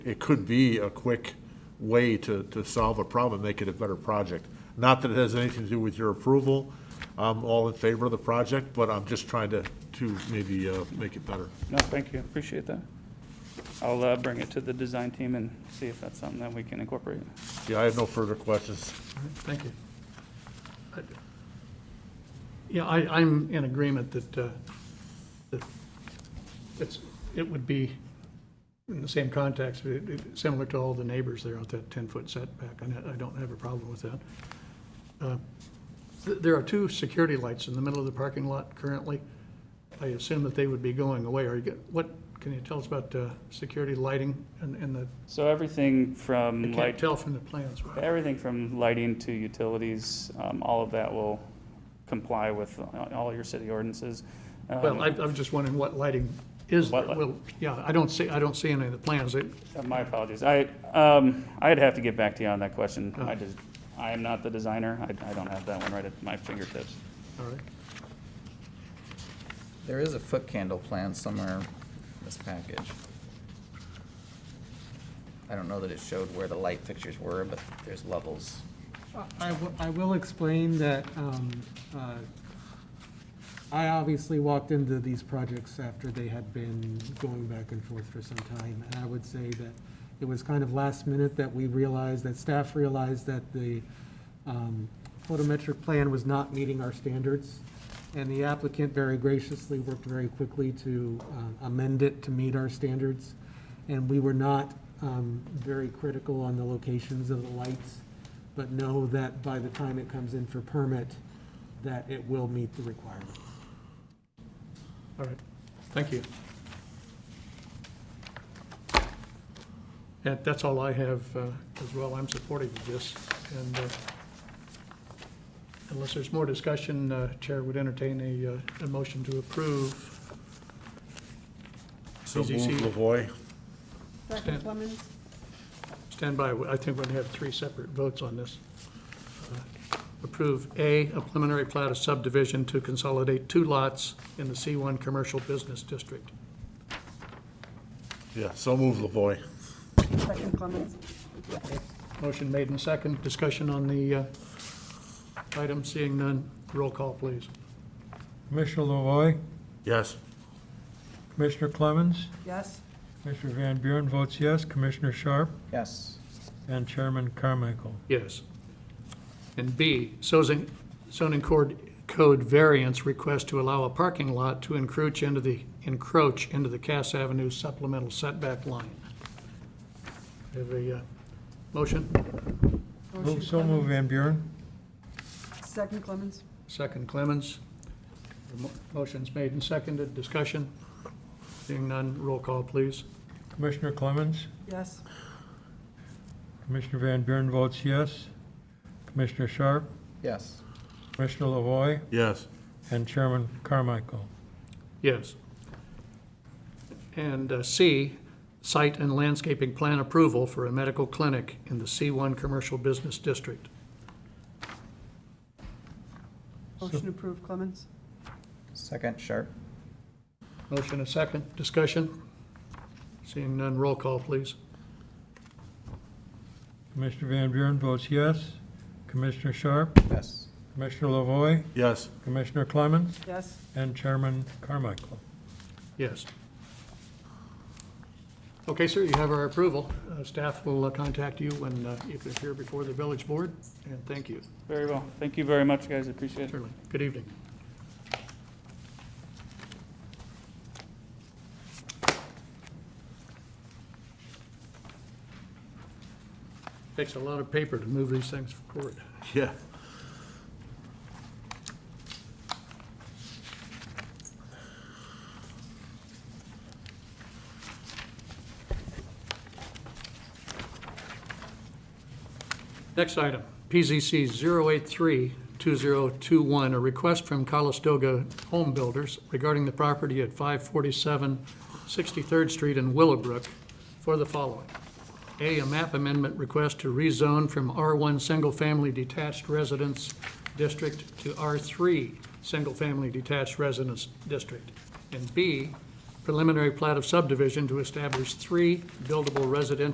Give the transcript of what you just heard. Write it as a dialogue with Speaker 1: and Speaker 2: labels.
Speaker 1: it could be a quick way to, to solve a problem, make it a better project. Not that it has anything to do with your approval, I'm all in favor of the project, but I'm just trying to, to maybe uh, make it better.
Speaker 2: No, thank you, appreciate that. I'll uh, bring it to the design team and see if that's something that we can incorporate.
Speaker 1: Yeah, I have no further questions.
Speaker 3: Thank you. I- Yeah, I, I'm in agreement that, uh, that it's, it would be in the same context, it- it- similar to all the neighbors there out that 10-foot setback. and I I don't have a problem with that. Uh, th- There are two security lights in the middle of the parking lot currently. I assume that they would be going away. Are you, get- what, can you tell us about uh, security lighting and and the,
Speaker 2: So everything
Speaker 3: I
Speaker 2: from
Speaker 3: can't
Speaker 2: light,
Speaker 3: tell from the plans.
Speaker 2: everything from lighting to utilities, um, all of that will comply with all your city ordinances. Um,
Speaker 3: Well, I, I was just wondering what lighting is there.
Speaker 2: What light?
Speaker 3: Well, yeah, I don't see, I don't see any of the plans. It-
Speaker 2: Uh, My apologies. I, um, I'd have to get back to you on that question.
Speaker 3: Oh.
Speaker 2: I just, I am not the designer. I, I don't have that one right at my fingertips.
Speaker 3: All right.
Speaker 4: There is a foot candle plan somewhere in this package. I don't know that it showed where the light fixtures were, but there's levels.
Speaker 5: I w- I will explain that um, uh, I obviously walked into these projects after they had been going back and forth for some time. And I would say that it was kind of last minute that we realized, that staff realized that the um, photometric plan was not meeting our standards. And the applicant very graciously worked very quickly to uh, amend it to meet our standards. And we were not um, very critical on the locations of the lights but know that by the time it comes in for permit, that it will meet the requirements.
Speaker 3: All right, thank you. That, that's all I have uh, as well. I'm supportive of this, and uh, unless there's more discussion, uh, Chair would entertain a, uh, a motion to approve.
Speaker 1: So move
Speaker 3: PZC.
Speaker 1: Lavoy.
Speaker 3: Stand-
Speaker 6: Second, Clemens?
Speaker 3: Stand by, I think we're going to have three separate votes on this. Uh, Approve A, a preliminary plat of subdivision to consolidate two lots in the C1 Commercial Business District.
Speaker 1: Yeah, so move Lavoy.
Speaker 6: Second, Clemens?
Speaker 3: Motion made and second. Discussion on the uh, item, seeing none. Roll call, please.
Speaker 7: Commissioner Lavoy,
Speaker 1: Yes.
Speaker 7: Commissioner Clemens,
Speaker 6: Yes?
Speaker 7: Commissioner Van Buren votes yes, Commissioner Sharp,
Speaker 4: Yes.
Speaker 7: and Chairman Carmichael.
Speaker 3: Yes. And B, zoning zoning cord- code variance request to allow a parking lot to encroach into the, encroach into the Cass Avenue supplemental setback line. We Have a uh, motion,
Speaker 7: Move, so move, Van Buren.
Speaker 6: Second, Clemens?
Speaker 3: second Clemens. The mo- Motion's made and seconded. Discussion? Seeing none, roll call, please.
Speaker 7: Commissioner Clemens,
Speaker 6: Yes?
Speaker 7: Commissioner Van Buren votes yes, Commissioner Sharp,
Speaker 4: Yes.
Speaker 7: Commissioner Lavoy,
Speaker 1: Yes.
Speaker 7: and Chairman Carmichael.
Speaker 3: Yes. And uh, C, site and landscaping plan approval for a medical clinic in the C1 Commercial Business District.
Speaker 6: Motion approved, Clemens?
Speaker 4: Second, Sharp?
Speaker 3: Motion a second, discussion? Seeing none, roll call, please.
Speaker 7: Commissioner Van Buren votes yes, Commissioner Sharp,
Speaker 4: Yes.
Speaker 7: Commissioner Lavoy,
Speaker 1: Yes.
Speaker 7: Commissioner Clemens,
Speaker 6: Yes?
Speaker 7: and Chairman Carmichael.
Speaker 3: Yes. Okay, sir, you have our approval. Uh, Staff will uh, contact you when uh, you can appear before the village board, and thank you,
Speaker 2: Very well. Thank you very much, guys. Appreciate it.
Speaker 3: certainly. Good evening. Takes a lot of paper to move these things forward.
Speaker 1: Yeah.
Speaker 3: Next item, PZC 0832021, a request from Calistoga Home Builders regarding the property at 547 63rd Street in Willowbrook for the following. A, a map amendment request to rezone from R1 Single Family Detached Residence District to R3 Single Family Detached Residence District. And B, preliminary plat of subdivision to establish three buildable residential